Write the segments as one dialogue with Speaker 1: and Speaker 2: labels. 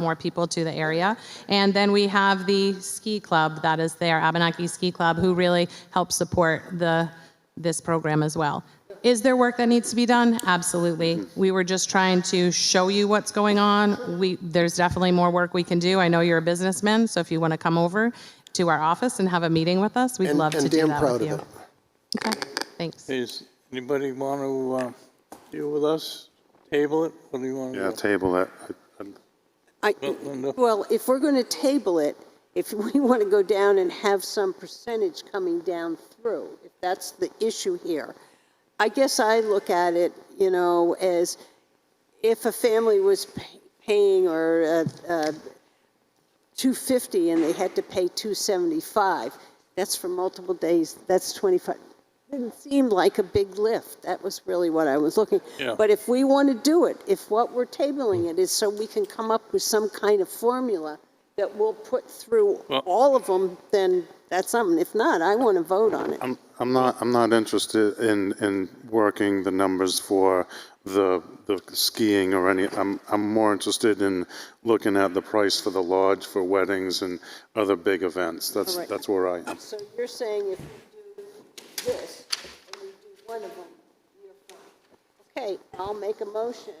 Speaker 1: more people to the area. And then we have the ski club that is there, Abenaki Ski Club, who really helps support the, this program as well. Is there work that needs to be done? Absolutely. We were just trying to show you what's going on. We, there's definitely more work we can do. I know you're a businessman, so if you want to come over to our office and have a meeting with us, we'd
Speaker 2: And-
Speaker 1: love to
Speaker 2: and
Speaker 1: do
Speaker 2: damn
Speaker 1: that
Speaker 2: proud
Speaker 1: with
Speaker 2: of
Speaker 1: you.
Speaker 2: it.
Speaker 1: Okay, Thanks.
Speaker 3: Does anybody want to uh, deal with us? Table it? What do you want
Speaker 4: Yeah,
Speaker 3: to do?
Speaker 4: table it.
Speaker 5: I,
Speaker 3: Linda?
Speaker 5: well, if we're going to table it, if we want to go down and have some percentage coming down through, if that's the issue here, I guess I look at it, you know, as if a family was pay- paying or, uh, uh, 250 and they had to pay 275, that's for multiple days, that's 25. Didn't seem like a big lift. That was really what I was looking.
Speaker 3: Yeah. Hmm.
Speaker 5: But if we want to do it, if what we're tabling it is so we can come up with some kind of formula that we'll put through
Speaker 3: Well-
Speaker 5: all of them, then that's something. If not, I want to vote on it.
Speaker 4: I'm, I'm not, I'm not interested in, in working the numbers for the, the skiing or any, I'm, I'm more interested in looking at the price for the lodge for weddings and other big events. That's,
Speaker 5: Correct.
Speaker 4: that's where I am.
Speaker 5: So you're saying if we do this and we do one of them, you're fine. Okay, I'll make a motion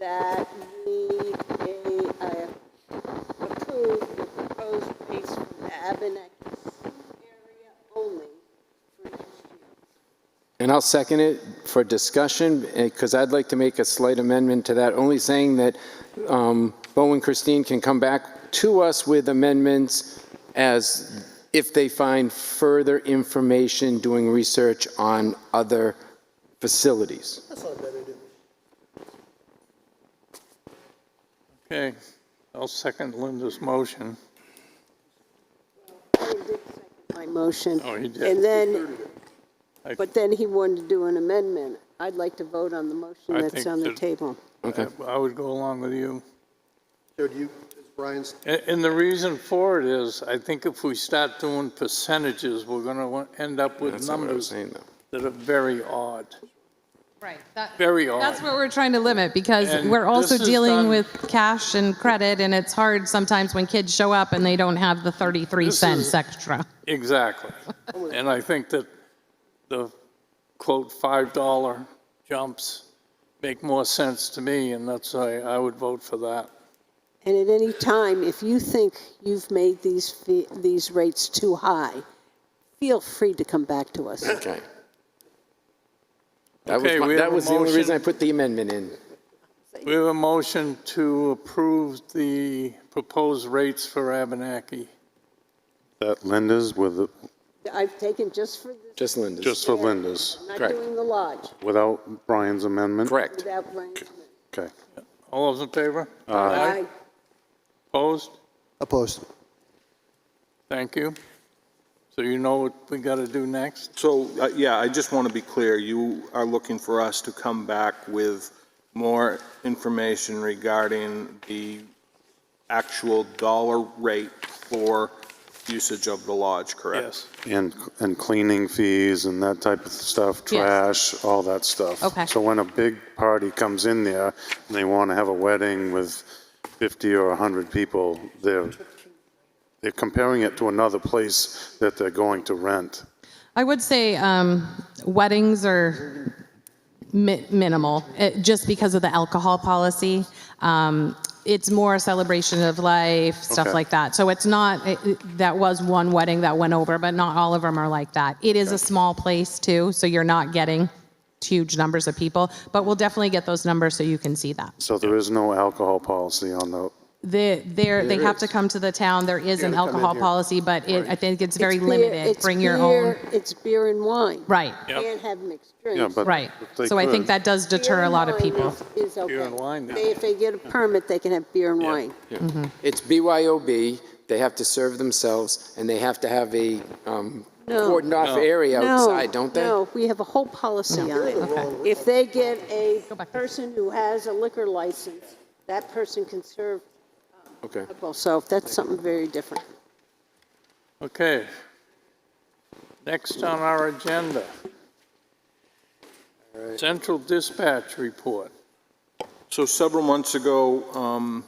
Speaker 5: that we uh, approve the proposed rates for the Abenaki area only for next year.
Speaker 6: And I'll second it for discussion, because I'd like to make a slight amendment to that, only saying that um, Bo and Christine can come back to us with amendments as if they find further information doing research on other facilities.
Speaker 3: Okay, I'll second Linda's motion.
Speaker 5: He did second My motion.
Speaker 3: Oh, he did.
Speaker 5: And then,
Speaker 3: I-
Speaker 5: but then he wanted to do an amendment. I'd like to vote on the motion
Speaker 3: I
Speaker 5: that's
Speaker 3: think
Speaker 5: on the
Speaker 3: that-
Speaker 5: table.
Speaker 6: Okay.
Speaker 3: I would go along with you.
Speaker 2: So do you, is Brian's,
Speaker 3: A- And the reason for it is, I think if we start doing percentages, we're going to end up with
Speaker 6: That's not what I was
Speaker 3: numbers
Speaker 6: saying, though.
Speaker 3: that are very odd.
Speaker 1: Right. that-
Speaker 3: Very odd.
Speaker 1: That's what we're trying to limit because
Speaker 3: And
Speaker 1: we're also
Speaker 3: this is
Speaker 1: dealing
Speaker 3: done-
Speaker 1: with cash and credit and it's hard sometimes when kids show up and they don't have the 33
Speaker 3: This
Speaker 1: cents
Speaker 3: is-
Speaker 1: extra.
Speaker 3: Exactly. And I think that the quote $5 jumps make more sense to me, and that's why I would vote for that.
Speaker 5: And at any time, if you think you've made these, fee- these rates too high, feel free to come back to us.
Speaker 6: Okay. That was,
Speaker 3: Okay, we
Speaker 6: my-
Speaker 3: have
Speaker 6: that
Speaker 3: a
Speaker 6: was the only
Speaker 3: motion.
Speaker 6: reason I put the amendment in.
Speaker 3: We have a motion to approve the proposed rates for Abenaki.
Speaker 4: That Linda's with,
Speaker 5: I've taken just for this,
Speaker 6: Just Linda's.
Speaker 4: just for Linda's,
Speaker 5: not
Speaker 6: correct.
Speaker 5: doing the lodge,
Speaker 4: without Brian's amendment?
Speaker 6: Correct.
Speaker 5: without Brian.
Speaker 4: Okay.
Speaker 3: All those in favor?
Speaker 5: Aye.
Speaker 3: Opposed?
Speaker 2: opposed?
Speaker 3: Thank you. So you know what we got to do next?
Speaker 7: So, uh, yeah, I just want to be clear, you are looking for us to come back with more information regarding the actual dollar rate for usage of the lodge, correct?
Speaker 3: Yes.
Speaker 4: And, and cleaning fees and that type of stuff, trash, all that stuff.
Speaker 1: Okay.
Speaker 4: So when a big party comes in there and they want to have a wedding with 50 or 100 people, they're, they're comparing it to another place that they're going to rent.
Speaker 1: I would say um, weddings are mi- minimal it, just because of the alcohol policy. Um, it's more celebration of life, stuff
Speaker 4: Okay.
Speaker 1: like that. So it's not, it, it- that was one wedding that went over, but not all of them are like that. It is a small place too, so you're not getting huge numbers of people, but we'll definitely get those numbers so you can see that.
Speaker 4: So there is no alcohol policy on the,
Speaker 1: The, there, they have to come to the town. There is an
Speaker 2: gotta come in
Speaker 1: alcohol
Speaker 2: here.
Speaker 1: policy, but it, I think it's very
Speaker 5: It's beer-
Speaker 1: limited.
Speaker 5: it's
Speaker 1: Bring your own.
Speaker 5: beer- It's beer and wine.
Speaker 1: Right,
Speaker 3: Yep.
Speaker 5: Can't have mixed
Speaker 4: yeah,
Speaker 5: drinks.
Speaker 4: but.
Speaker 1: right.
Speaker 4: but they
Speaker 1: So I think
Speaker 4: could.
Speaker 1: that does deter a lot of
Speaker 5: Beer and
Speaker 1: people.
Speaker 5: wine is- is okay.
Speaker 3: and wine, yeah.
Speaker 5: They- If they get a permit, they can have beer and wine.
Speaker 6: It's BYOB, they have to serve themselves, and they have to have a um,
Speaker 5: No.
Speaker 6: cordoned-off area
Speaker 5: No,
Speaker 6: outside, don't they?
Speaker 5: No, we have a whole policy on it. If they get a person who has a liquor license, that person can serve
Speaker 6: Okay.
Speaker 5: alcohol. So that's something very different.
Speaker 3: Okay. Next on our agenda. Central Dispatch Report.
Speaker 7: So several months ago, um,